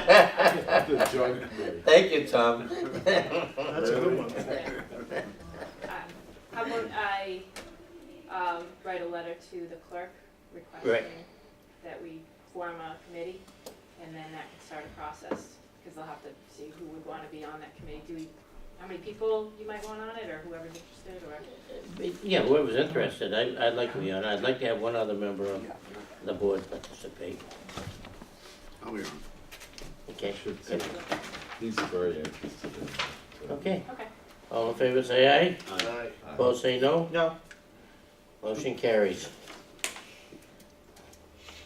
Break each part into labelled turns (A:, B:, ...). A: The joint committee.
B: Thank you, Tom.
C: That's a good one.
D: Um, How about I um, write a letter to the clerk
B: Right.
D: requesting that we form a committee, and then that can start a process, because they'll have to see who would want to be on that committee. Do we, how many people you might want on it, or whoever's interested, or?
B: Yeah, whoever's interested, I, I'd like to be on, I'd like to have one other member of the board participate,
E: I'll be on.
B: okay?
A: Should see. He's very interested in it. so.
B: Okay,
D: Okay.
B: all in favor say aye,
C: Aye.
A: Aye.
B: opposed say no,
C: No.
B: motion carries.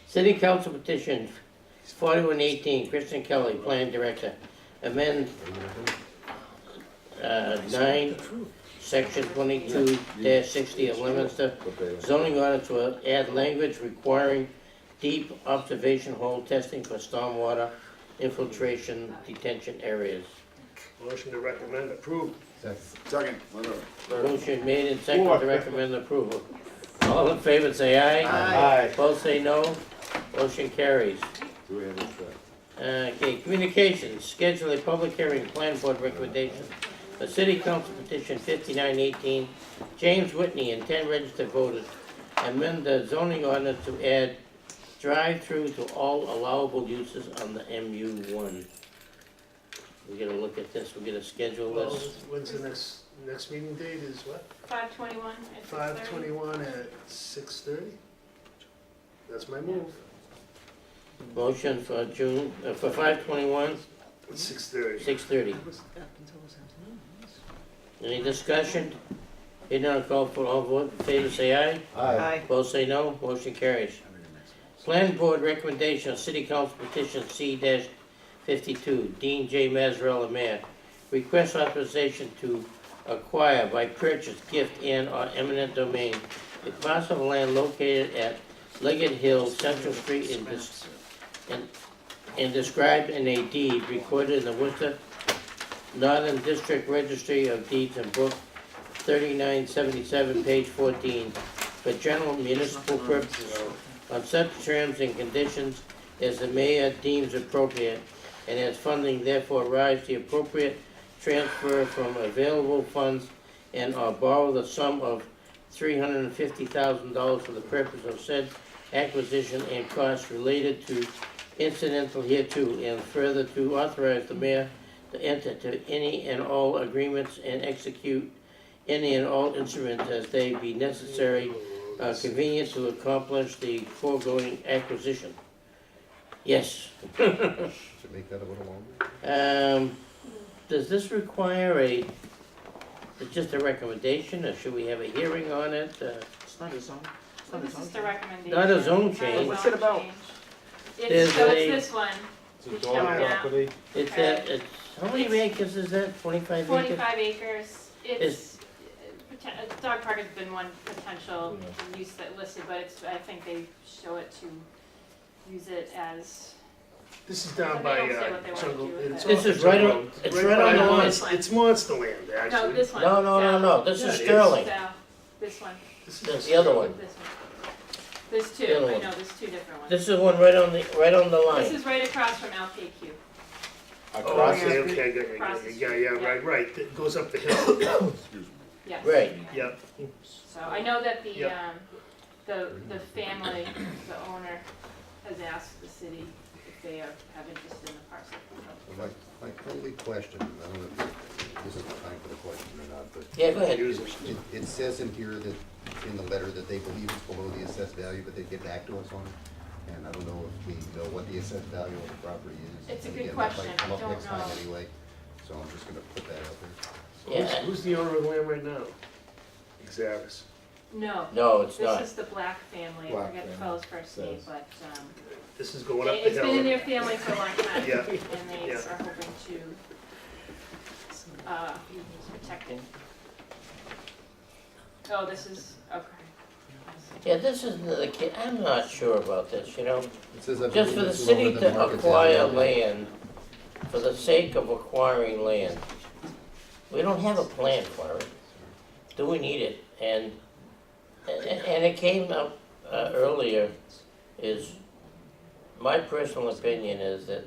B: City Council petition forty-one eighteen, Kristen Kelly, Plan Director, amend, uh, nine, section twenty-two dash sixty of Leominster
A: But they-
B: Zoning ordinance will add language requiring deep observation hole testing for stormwater infiltration detention areas.
C: Motion to recommend approved.
E: Second, whatever.
B: Motion made and seconded to recommend approval. All in favor, say aye.
C: Aye.
B: Both say no. Motion carries.
A: Do we have a second?
B: Okay, communications, schedule a public hearing, plan board recommendation. A city council petition fifty-nine eighteen, James Whitney and ten registered voters amend the zoning ordinance to add drive-through to all allowable uses on the MU one. We're gonna look at this, we're gonna schedule
C: Well,
B: this.
C: when's the next, next meeting date is what?
D: Five twenty-one at six thirty?
C: Five twenty-one at six thirty? That's my move,
B: Motion for June, uh, for five twenty-one,
C: six thirty.
B: six thirty. Any discussion? Hearing none, call for all vote, in favor say aye.
F: Aye.
B: Both say no, motion carries. Plan Board recommendation, on City Council petition C fifty-two, Dean J. Mazzarella, Mayor. Request authorization to acquire by purchase, gift, and or eminent domain a parcel of land located at Leggett Hill, Central Street, and dis- and, and described in a deed recorded in the Worcester Northern District Registry of Deeds and Book thirty-nine seventy-seven, page fourteen, for general municipal purposes on such terms and conditions as the mayor deems appropriate, and as funding therefore arrives, the appropriate transfer from available funds and or borrow the sum of three hundred and fifty thousand dollars for the purpose of said acquisition and costs related to incidental hereto, and further to authorize the mayor to enter to any and all agreements and execute any and all instruments as they be necessary
C: Oh,
B: uh, convenient to accomplish the foregoing acquisition. Yes,
A: Should make that a little longer?
B: um, does this require a, just a recommendation, or should we have a hearing on it? Uh,
F: It's not a zone. It's
D: So
F: not a
D: this
F: zone.
D: is the recommendation.
B: Not a zone
D: Not a
B: change.
F: What's it
D: zone
F: about?
D: change. It's,
B: There's
D: so
B: a-
D: it's this one,
A: It's a
D: Which
A: dog
D: one?
A: property.
B: It's that, it's, how many acres is that, twenty-five acres?
D: forty-five acres, it's, uh, poten- uh, dog park has been one potential use that listed, but it's, I think they show it to use it as
C: This is down
D: They
C: by
D: don't say
C: uh,
D: what they wanna
C: jungle.
D: do with
C: it's
D: it.
B: This
C: off
B: is
C: the
B: right
C: jungle.
B: on- it's right on
C: by
D: the line.
C: Monst- It's monster land,
D: No,
C: actually.
D: this one.
B: No, no, no, no, this
C: Yeah,
B: is
C: it is.
B: Sterling,
D: So, this one,
C: This
B: that's
C: is
B: the other one.
D: this one. There's two,
B: The other
D: I
B: one.
D: know, there's two different ones.
B: This is the one right on the, right on the
D: This
B: line.
D: is right across from LKQ.
C: Oh,
A: Across
C: okay, okay, I got you, I
D: Across
C: got
D: the
C: you, yeah, yeah,
D: street,
C: right, right, it goes up the hill,
D: Yes.
B: Right.
C: yep.
D: So I know that the,
C: Yep.
D: um, the, the family, the owner, has asked the city if they are, have interest in the parcel.
G: My, my only question, I don't know if this is the time for the question or not, but
B: Yeah, go ahead.
C: Use it.
G: it, it says in here that, in the letter, that they believe it's below the assessed value, but they get back to us on it. And I don't know if we know what the assessed value of the property is.
D: It's a
G: And
D: good
G: again, that might
D: question.
G: come
D: I
G: up
D: don't
G: next time
D: know.
G: Anyway, so I'm just gonna put that out there.
C: Who's,
B: Yeah.
C: who's the owner of the land right now? Exavis.
D: No,
B: No, it's
D: this
B: not.
D: is the Black family, I
A: Black
D: forget the
A: family,
D: fellow's first name,
A: says.
D: but, um,
C: This is going up
D: it-
C: the
D: it's been in
C: hill.
D: their family for a long time.
C: Yeah.
D: And they
C: Yeah.
D: are hoping to, uh, protect it. Oh, this is, okay.
B: Yeah, this is the, ca- I'm not sure about this, you know?
G: It says. I
B: Just
G: believe
B: for the
G: it's lower
B: city
G: than
B: to
G: market
B: acquire
G: value.
B: land, for the sake of acquiring land, we don't have a plan for it. Do we need it? And, and and it came up uh, earlier, is, my personal opinion is that